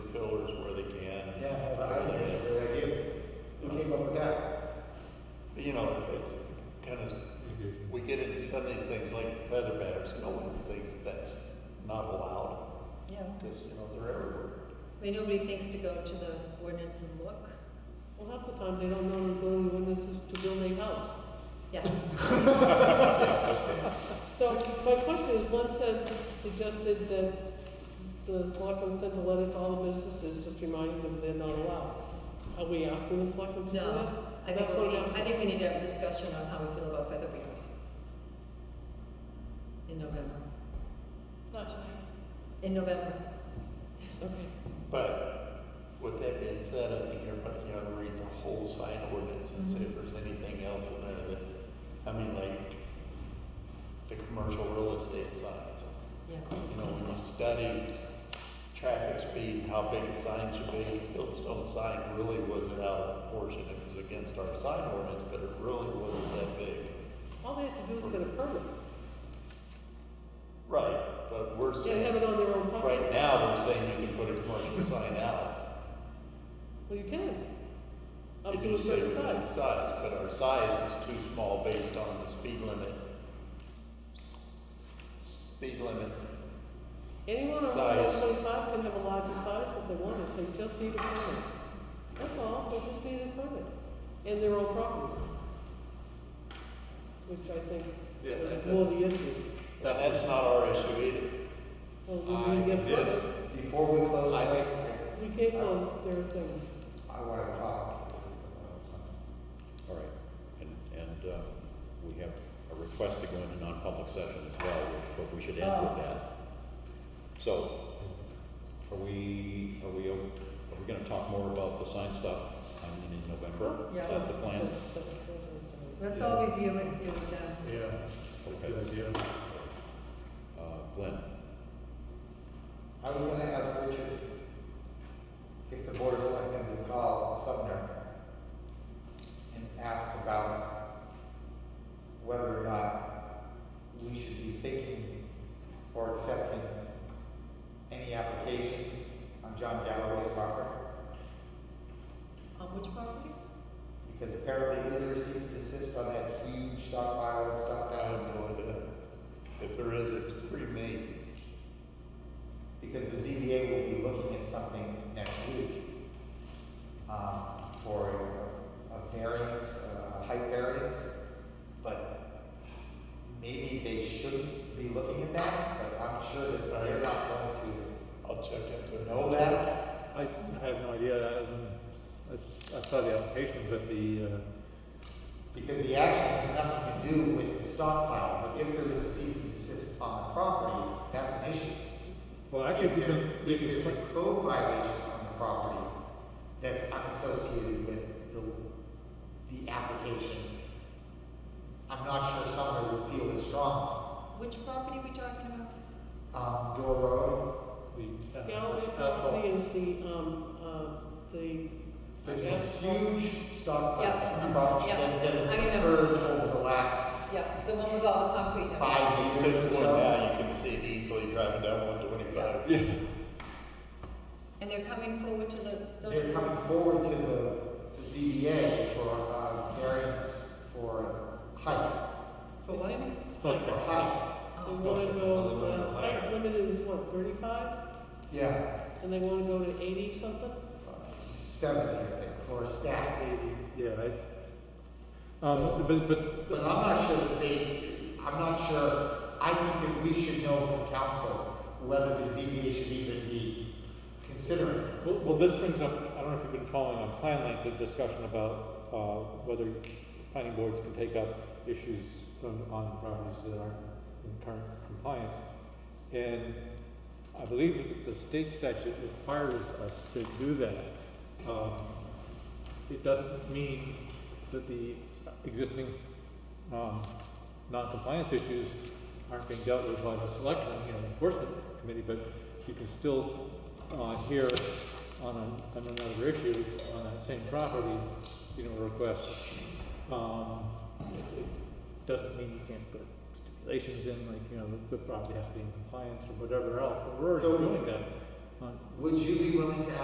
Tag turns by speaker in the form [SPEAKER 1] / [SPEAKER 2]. [SPEAKER 1] I mean, nobody thinks to go to the ordinance and look.
[SPEAKER 2] Well, half the time, they don't know the building ordinances to build a house.
[SPEAKER 1] Yeah,
[SPEAKER 2] So my question is, Len said, suggested that the selectmen sent a letter to all the businesses, just reminding them they're not allowed. Are we asking the selectmen to do that?
[SPEAKER 1] no, I think
[SPEAKER 2] That's
[SPEAKER 1] we
[SPEAKER 2] what
[SPEAKER 1] need,
[SPEAKER 2] I'm
[SPEAKER 1] I think we need to have a discussion on how we feel about feather beavers. In November,
[SPEAKER 3] Not tonight.
[SPEAKER 1] in November,
[SPEAKER 2] Okay,
[SPEAKER 4] But with that being said, I think everybody ought to read the whole sign ordinance and see if there's anything else in there that, I mean, like the commercial real estate signs.
[SPEAKER 1] yeah.
[SPEAKER 4] You know, we must study traffic speed, how big a sign should be. Fieldstone sign really wasn't out of proportion. It was against our sign ordinance, but it really wasn't that big.
[SPEAKER 2] all they have to do is get a permit.
[SPEAKER 4] Right, but we're
[SPEAKER 2] They have
[SPEAKER 4] saying,
[SPEAKER 2] it on their own property.
[SPEAKER 4] right now, we're saying you can put a commercial sign out.
[SPEAKER 2] Well, you can. Up
[SPEAKER 4] If
[SPEAKER 2] to
[SPEAKER 4] you
[SPEAKER 2] a
[SPEAKER 4] say
[SPEAKER 2] certain
[SPEAKER 4] within
[SPEAKER 2] size.
[SPEAKER 4] size, but our size is too small based on the speed limit. S- Speed limit,
[SPEAKER 2] Anyone over
[SPEAKER 4] Size.
[SPEAKER 2] twenty-five can have a larger size if they want it, they just need a permit. That's all, they just need a permit, and their own property. Which I think
[SPEAKER 5] Yeah,
[SPEAKER 2] is
[SPEAKER 5] that-
[SPEAKER 2] more the issue.
[SPEAKER 4] and that's not our issue either.
[SPEAKER 2] Well, we need to get a
[SPEAKER 5] I did.
[SPEAKER 2] permit.
[SPEAKER 6] Before we close,
[SPEAKER 5] I
[SPEAKER 6] I
[SPEAKER 5] think-
[SPEAKER 2] We can't close their things.
[SPEAKER 6] I want to talk about something.
[SPEAKER 7] All right, and, and, um, we have a request to go into non-public session as well, but we should end
[SPEAKER 1] Oh.
[SPEAKER 7] with that. So, are we, are we, o- are we gonna talk more about the sign stuff, I mean, in November?
[SPEAKER 1] Yeah.
[SPEAKER 7] Is that the plan?
[SPEAKER 1] Let's all review it, do it then.
[SPEAKER 7] Okay. Uh, Glenn,
[SPEAKER 6] I was going to ask Richard if the board of selectmen would call Sumner and ask about whether or not we should be thinking or accepting any applications on John Galloway's property.
[SPEAKER 1] On which property?
[SPEAKER 6] Because apparently, is there a cease and desist on that huge stockpile of stuff
[SPEAKER 4] I have
[SPEAKER 6] down?
[SPEAKER 4] no idea. If there is, it's pre-made.
[SPEAKER 6] Because the ZBA will be looking at something next week, um, for a, a variance, a height variance, but maybe they shouldn't be looking at that, but I'm sure that they're not going
[SPEAKER 4] I'll check into
[SPEAKER 6] to
[SPEAKER 4] it.
[SPEAKER 6] know that.
[SPEAKER 8] I I have no idea. I, I- I saw the application, but the, uh,
[SPEAKER 6] Because the action has nothing to do with the stockpile, but if there is a cease and desist on the property, that's an issue.
[SPEAKER 8] well, actually,
[SPEAKER 6] If
[SPEAKER 8] if you
[SPEAKER 6] there,
[SPEAKER 8] can,
[SPEAKER 6] if there's a code violation on the property that's unassociated with the, the application, I'm not sure Sumner would feel as strong.
[SPEAKER 1] Which property are we talking about?
[SPEAKER 6] Um, Door Road,
[SPEAKER 8] the. uh,
[SPEAKER 2] Galloway's
[SPEAKER 8] asphalt.
[SPEAKER 2] property is the, um, um, the.
[SPEAKER 6] there's a huge stockpile
[SPEAKER 1] Yeah.
[SPEAKER 6] of rocks
[SPEAKER 1] Yeah.
[SPEAKER 6] that that has
[SPEAKER 1] I remember.
[SPEAKER 6] occurred over the last
[SPEAKER 1] Yeah,
[SPEAKER 3] The one with all the concrete. and everything.
[SPEAKER 6] five
[SPEAKER 4] It's
[SPEAKER 6] years
[SPEAKER 4] good
[SPEAKER 6] or
[SPEAKER 4] one
[SPEAKER 6] so.
[SPEAKER 4] now, you can see it easily driving down one twenty-five.
[SPEAKER 1] and they're coming forward to the zoning.
[SPEAKER 6] They're coming forward to the, the ZBA for, uh, variance for height,
[SPEAKER 1] For what?
[SPEAKER 6] for
[SPEAKER 8] Okay.
[SPEAKER 6] height,
[SPEAKER 2] They
[SPEAKER 1] Oh,
[SPEAKER 2] wanna go,
[SPEAKER 4] Other
[SPEAKER 2] uh,
[SPEAKER 4] than
[SPEAKER 2] height
[SPEAKER 4] higher.
[SPEAKER 2] limit is what, thirty-five?
[SPEAKER 6] yeah,
[SPEAKER 2] And they wanna go to eighty something?
[SPEAKER 6] seventy, I think, for a stack.
[SPEAKER 8] Maybe, Yeah, it's, um, but, but,
[SPEAKER 6] But I'm not sure that they, I'm not sure, I think that we should know from council whether the ZBA should even be considering
[SPEAKER 8] well,
[SPEAKER 6] this.
[SPEAKER 8] well, this brings up, I don't know if you've been following on Planlink, the discussion about, uh, whether planning boards can take up issues on, on properties that aren't in current compliance. And I believe that the state statute requires us to do that. Um, it doesn't mean that the existing, um, non-compliance issues aren't being dealt with by the selectmen, you know, enforcement committee, but you can still, uh, hear on a, on another issue, on that same property, you know, request. Um, it- it doesn't mean you can't put stipulations in, like, you know, the property has to be in compliance or whatever else, but we're
[SPEAKER 6] So-
[SPEAKER 8] already doing that on,
[SPEAKER 6] Would you be willing to